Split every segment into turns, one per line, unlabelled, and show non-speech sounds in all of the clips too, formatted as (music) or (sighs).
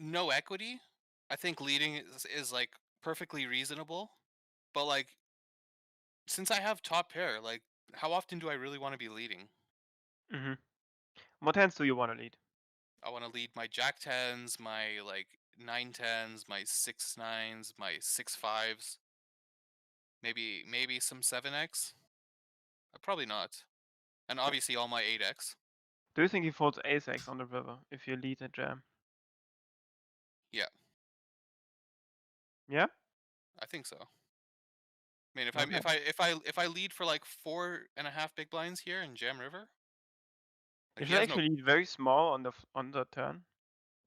no equity. I think leading is, is like perfectly reasonable, but like since I have top pair, like how often do I really want to be leading?
hmm What hands do you want to lead?
I want to lead my jack tens, my like nine tens, my six nines, my six fives, maybe maybe some seven x. Uh, Probably not, and obviously all my eight x.
Do you think he folds ace x on the river if you lead a jam?
Yeah.
Yeah?
I think so. I mean, if I
Okay.
if I if I if I lead for like four and a half big blinds here in Jam River, like he
You should
has no
actually lead very small on the f- on the turn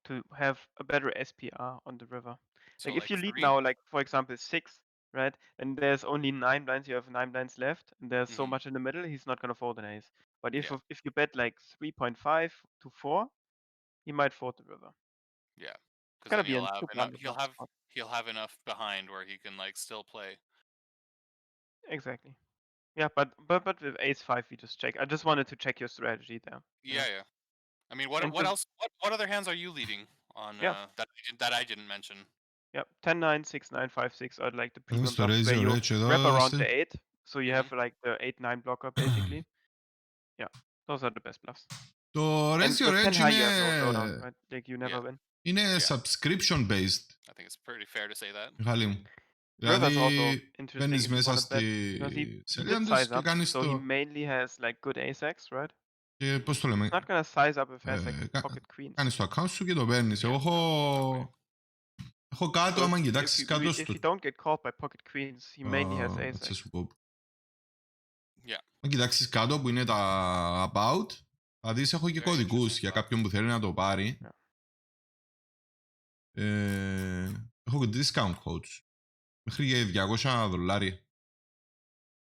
to have a better SPR on the river.
so
like if you lead
three.
now, like for example six, right? And there's only nine blinds. You have nine blinds left, and there's so
Mhm.
much in the middle. He's not gonna fold an ace. But if
Yeah.
if you bet like three point five to four, he might fold the river.
Yeah, because
gotta
then
be
he'll
a
have
super
enough, he'll
wonderful
have
spot.
he'll have enough behind where he can like still play.
Exactly. Yeah, but but but with ace five, we just check. I just wanted to check your strategy there. Yeah.
Yeah, yeah. I mean, what
And
what
the-
else? What what other hands are you leading on
Yeah.
uh, that I didn't, that I didn't mention?
Yep, 10, 9, 6, 9, 5, 6 are like the premium
Mr.
blocks where
Razor
you
Rich at
wrap around
Austin.
the 8. So you
Mhm.
have like the 8, 9 blocker basically. yeah, those are the best bluffs.
So
And
raise your
with 10
edge in
high, you have no showdown,
a,
right? Like you never
Yeah.
win.
in a
Yeah.
subscription based,
I think it's pretty fair to say that.
Mm.
Halim.
River's also
Δηλαδή,
interesting
παίρνεις
if you
μέσα
wanna bet.
στη
because he- He
σελίδα
did
τους
size
και
up,
κάνεις
so he
το...
mainly has like good ace x, right?
Και πώς το λέμε,
Not gonna size up if he has
Ε,
like
κα-
pocket queen.
κάνεις το account σου και το παίρνεις. Εγώ
Okay.
έχω... Έχω κάτω,
So
άμα
if-
κοιτάξεις
if you
κάτω
re- If
στο...
you don't get called by pocket queens, he mainly has
Α,
ace
θα
x.
σου πω.
Yeah.
Αν κοιτάξεις κάτω που είναι τα about, θα δεις έχω και
Yeah,
κωδικούς
interesting
για
about.
κάποιον που θέλει να το πάρει.
Yeah.
Ε, έχω και discount codes. Μέχρι και 200 δολάρια.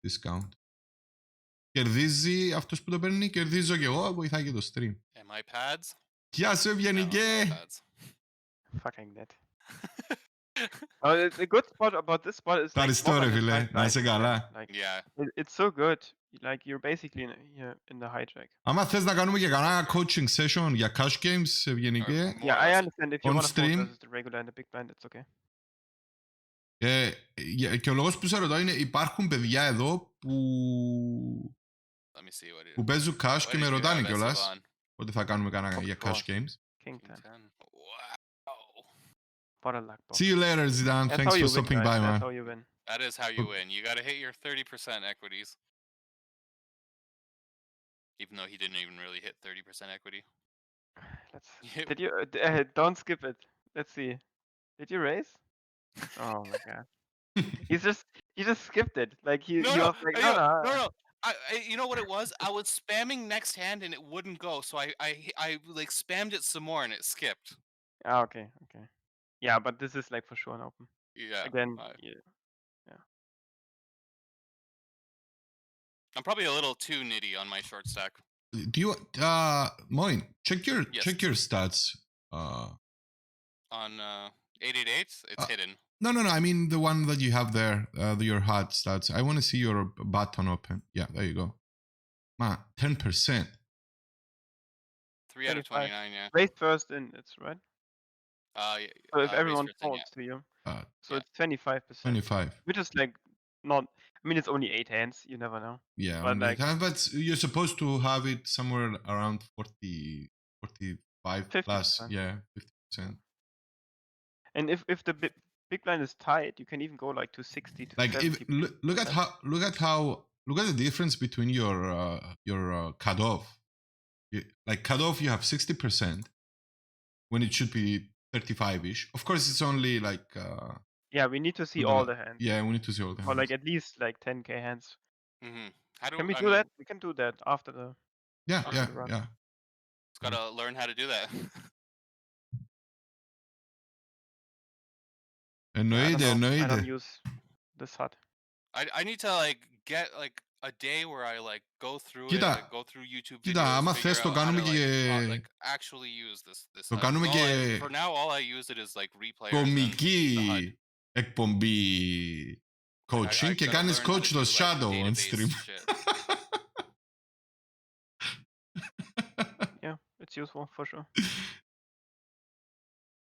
Discount. Κερδίζει αυτός που το παίρνει, κερδίζω και εγώ, βοηθάει και το stream.
Am I pads?
Γεια σου,
No,
Ευγενικέ!
I'm not pads. (laughs)
Fucking that. Oh, the- the good part about this spot is like
Ευχαριστώ,
one
ρε
on the
φίλε.
five
Να είσαι
lines,
καλά.
Like
Yeah.
it- it's so good. Like you're basically in, yeah, in the hijack.
Άμα θες να κάνουμε και κανένα coaching session για cash games, Ευγενικέ,
Or more
Yeah,
or
I
less.
understand if you
on
want to fold
stream.
versus the regular and the big blind, it's okay.
ε, για- και ο λόγος που σε ρωτάω είναι υπάρχουν παιδιά εδώ που,
Let me see what it
που παίζουν cash
what
και
did
με
you
ρωτάνε
have,
κιόλας.
Esteban?
Ότι θα κάνουμε κανένα
Of
για cash
course.
games.
King
King
ten.
ten. Wow.
What a luck ball.
See you later, Zidane.
That's
Thanks
how you
for
win,
stopping
guys.
by,
That's
man.
how you win. (sighs)
That is how you
Look-
Mm.
win. You got to hit your 30% equities. Even though he didn't even really hit 30% equity. (laughs)
Let's.
Yep.
Did you? (laughs) uh, d- Uh, don't skip it. Let's see. Did you raise? Oh my god. He's just. He just skipped it. Like he.
No,
he
no,
was like,
I
no,
know-
no. uh,"
no, no. I, I, you know what it was? I was spamming next hand and it wouldn't go, so I, I, I like spammed it some more and it skipped.
Ah, okay, okay. Yeah, but this is like for sure an open.
Yeah,
Again,
I-
yeah.
I'm probably a little too nitty on my short stack.
(laughs) Do you, uh, Moin, check your,
Yes.
check your stats. Uh,
On uh, 888, it's
Uh,
hidden.
no, no, no. I mean the one that you have there, uh, the- your hot stats. I want to see your button open. Yeah, there you go. Man, ten percent.
Three out of
25.
29. Yeah.
raise first in. It's right.
Uh, y- uh,
So if
raise
everyone
first in, yeah.
folds to you,
Uh,
so
Yeah.
it's twenty five percent,
Twenty-five.
which is like not. I mean, it's only eight hands. You never know.
Yeah,
But
on the
like-
time, but you're supposed to have it somewhere around 40, 45 plus.
50%.
Yeah, fifty percent.
And if if the big, big blind is tight, you can even go like to sixty to
Like, if,
70.
look, look at how, look at how, look at the difference between your uh, your uh, cutoff. You, like cutoff, you have sixty percent when it should be thirty-five ish. Of course, it's only like uh,
Yeah, we need to see
Look at
all
that.
the hands,
yeah, we need to see all the
Mm. or
hands.
like at least like ten k hands.
Mm-hmm. How do
Can we
I
do
mean,
that? We can do that after the.
yeah,
Okay,
yeah,
right.
yeah.
It's gotta learn how to do that. (laughs)
I don't
Εννοείται,
know, I don't
εννοείται.
use this hut.
I, I need to like get like a day where I like go through it,
Κοίτα.
like, go through YouTube
Κοίτα,
videos,
άμα
figure
θες το
out how
κάνουμε
to, like,
και-
uh, like actually use this this.
Το
stuff.
κάνουμε
All I-
και-
for now, all I use it is like
Tak
replay.
Κομική εκπομπή Tak, coaching και κάνεις coach το shadow on stream. (laughs)
Yeah, it's useful for sure.